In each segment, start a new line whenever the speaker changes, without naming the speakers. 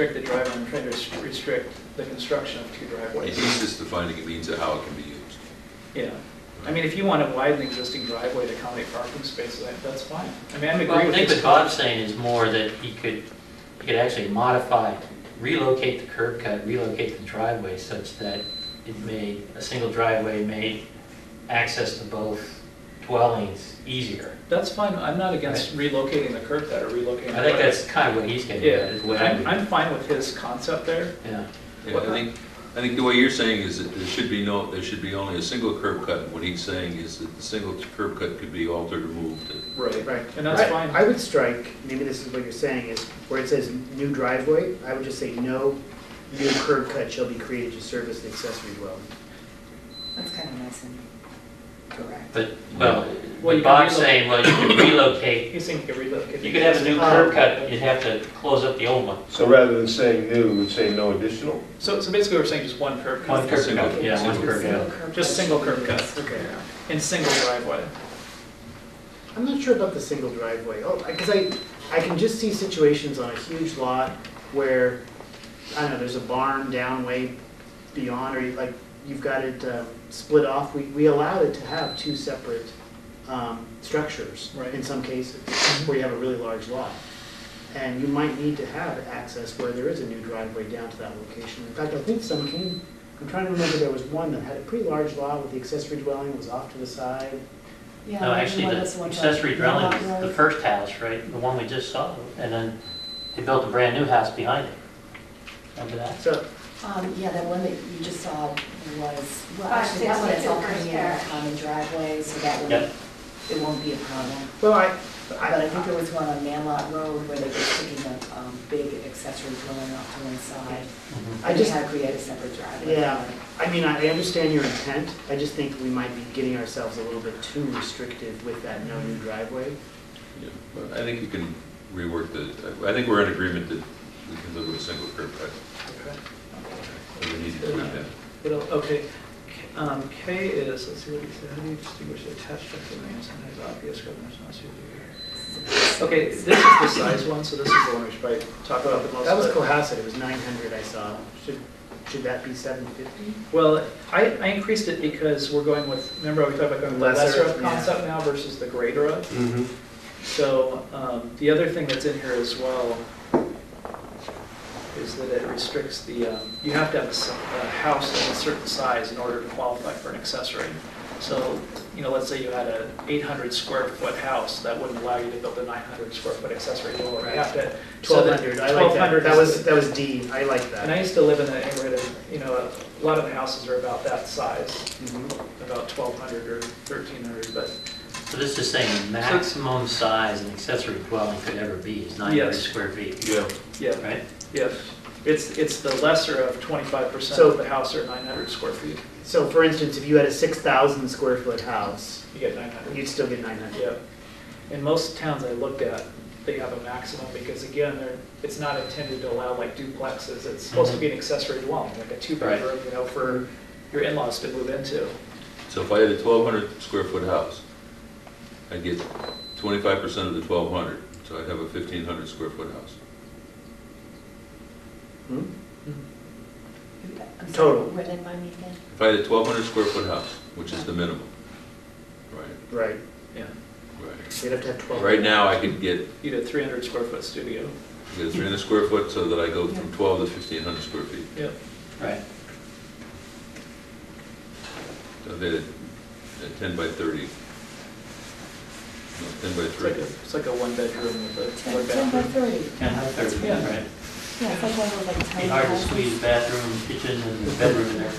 restrict the driveway, I'm trying to rest- restrict the construction of two
Is
driveways.
this just defining a means of how it can be used?
Yeah, I mean, if you want to widen the existing driveway to accommodate parking spaces, that- that's fine. I mean, I'm
Well,
agree
I
with
think what
this.
Bob's saying is more that he could, he could actually modify, relocate the curb cut, relocate the driveway such that it may, a single driveway made access to both dwellings easier.
That's fine, I'm not against relocating the curb cut or relocating. the
I think
driveway.
that's kind of what he's getting at, is
Yeah,
what I'm,
I'm, I'm fine with his concept there.
yeah.
Yeah, I think, I think the way you're saying is that there should be no, there should be only a single curb cut. What he's saying is that the single curb cut could be altered, removed. and-
Right.
Right.
And that's
Right.
fine.
I would strike, maybe this is what you're saying, is where it says new driveway, I would just say no new curb cut shall be created to service the accessory dwelling.
That's kind of nice and direct.
But, well,
Well, you
what
can
Bob's
relocate-
saying, well, you could relocate,
He's thinking you could relocate.
you could have a new curb cut, but you'd have to close up the old one.
So rather than saying new, we'd say no additional?
So, so basically, we're saying just one curb
One
cut
cur-
curb cut, yeah, one
Single
curb cut.
Just single curb cut.
Okay.
and single driveway.
I'm not sure about the single driveway, oh, because I, I can just see situations on a huge lot where, I don't know, there's a barn down way beyond, or you- like, you've got it um, split off, we, we allow it to have two separate um, structures
Right.
in some cases, where you have a really large lot. And you might need to have access where there is a new driveway down to that location. In fact, I think some came, I'm trying to remember, there was one that had a pretty large lot with the accessory dwelling was off to the side.
Yeah,
No,
like
actually,
one that's
the
one
accessory
like
dwelling
lot
was the
road.
first house, right, the one we just saw, and then they built a brand-new house behind it. Remember that?
So
Um, yeah, that one that you just saw was, well,
Five,
actually, that one is all coming
662
in
First
as a common driveway, so that one,
Yep.
it won't be a problem.
Well, I,
But I think
I,
there was one on Manlot Road where they were sticking a, um, big accessory dwelling off to one
I
side.
Mm-hmm.
I
just-
just had to create a separate driveway.
yeah, I mean, I I understand your intent, I just think we might be getting ourselves a little bit too restrictive with that no new driveway.
Yeah, but I think you can rework the, I think we're in agreement that we can live with a single curb cut. and We need to do that.
It'll- Okay, K- um, K is, let's see what he said, how do you distinguish the attached structure when it's not obvious, whether it's not suited? Okay, this is the size one, so this is the one we should probably talk about the most.
That was
but-
Cohasset, it was nine hundred I saw, should, should that be seven fifty?
Well, I, I increased it because we're going with, remember we talked about going with the
Lesser,
lesser of
yeah.
concept now versus the greater of?
Mm-hmm.
So, um, the other thing that's in here as well is that it restricts the, um, you have to have a s- a house of a certain size in order to qualify for an accessory. So, you know, let's say you had a 800 square foot house, that wouldn't allow you to build a 900 square foot accessory dwelling. You have to. so
Twelve
that-
hundred, I like that,
1200
that
is-
was, that was D, I like
And
that.
I used to live in a neighborhood, of, you know, a lot of the houses are about that size,
Mhm.
about 1,200 or 1,300, but
So this is saying maximum size an accessory dwelling could ever be is 900
Yes.
square feet,
Yeah.
yeah.
right?
Yes, it's, it's the lesser of twenty-five percent
So-
of the house or nine hundred square feet,
So for instance, if you had a six thousand square foot house,
you get nine hundred.
you'd still get nine hundred.
Yeah. In most towns I looked at, they have a maximum, because again, they're, it's not intended to allow like duplexes, it's supposed to be an accessory dwelling, like a two-bedroom, you know, for your in-laws to move into.
So if I had a twelve hundred square foot house, I'd get twenty-five percent of the twelve hundred, so I'd have a fifteen hundred square foot house.
Hmm?
I'm sorry,
Total.
Read it by me again.
If I had a twelve hundred square foot house, which is the minimum, right,
Right,
Yeah.
right.
you'd have to have twelve.
Right now, I could get
You did three hundred square foot studio.
Get a 300 square foot so that I go from 12 to 1,500 square feet.
Yep.
Right.
So they did a 10 by 30. No, 10 by
It's like a,
3.
it's like a one-bedroom with a,
Ten
one
ten by
bathroom.
thirty.
10 by 30,
Yeah.
right?
Yeah, it's like one of those like tiny
Be hard to
houses.
squeeze bathroom, kitchen, and bedroom in there.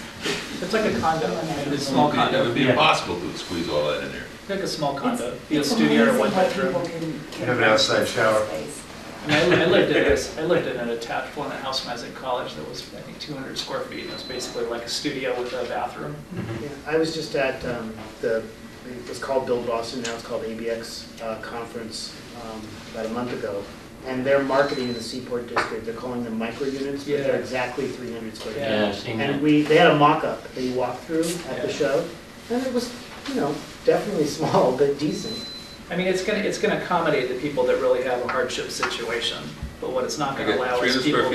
It's like a condo,
Yeah.
a small
It
condo,
would be
Yeah.
impossible to squeeze all that in there.
like a small condo,
It's-
be a
it's
studio or
amazing
one
what
bedroom.
people can- can
Have an outside shower.
space.
I mean, I I lived in this, I lived in an attached one, a house when I was in college that was, I think, 200 square feet. It was basically like a studio with a bathroom.
Mm-hmm.
Yeah, I was just at um, the, it was called Build Boston, now it's called ABX uh, Conference um, about a month ago. And they're marketing in the Seaport District, they're calling them micro units, but
Yeah.
they're exactly 300 square feet.
Yeah, I've seen that.
And we, they had a mock-up that you walked through at the
Yeah.
show, and it was, you know, definitely small, but decent.
I mean, it's gonna, it's gonna accommodate the people that really have a hardship situation, but what it's not
I
gonna
got
allow
300
is
square
people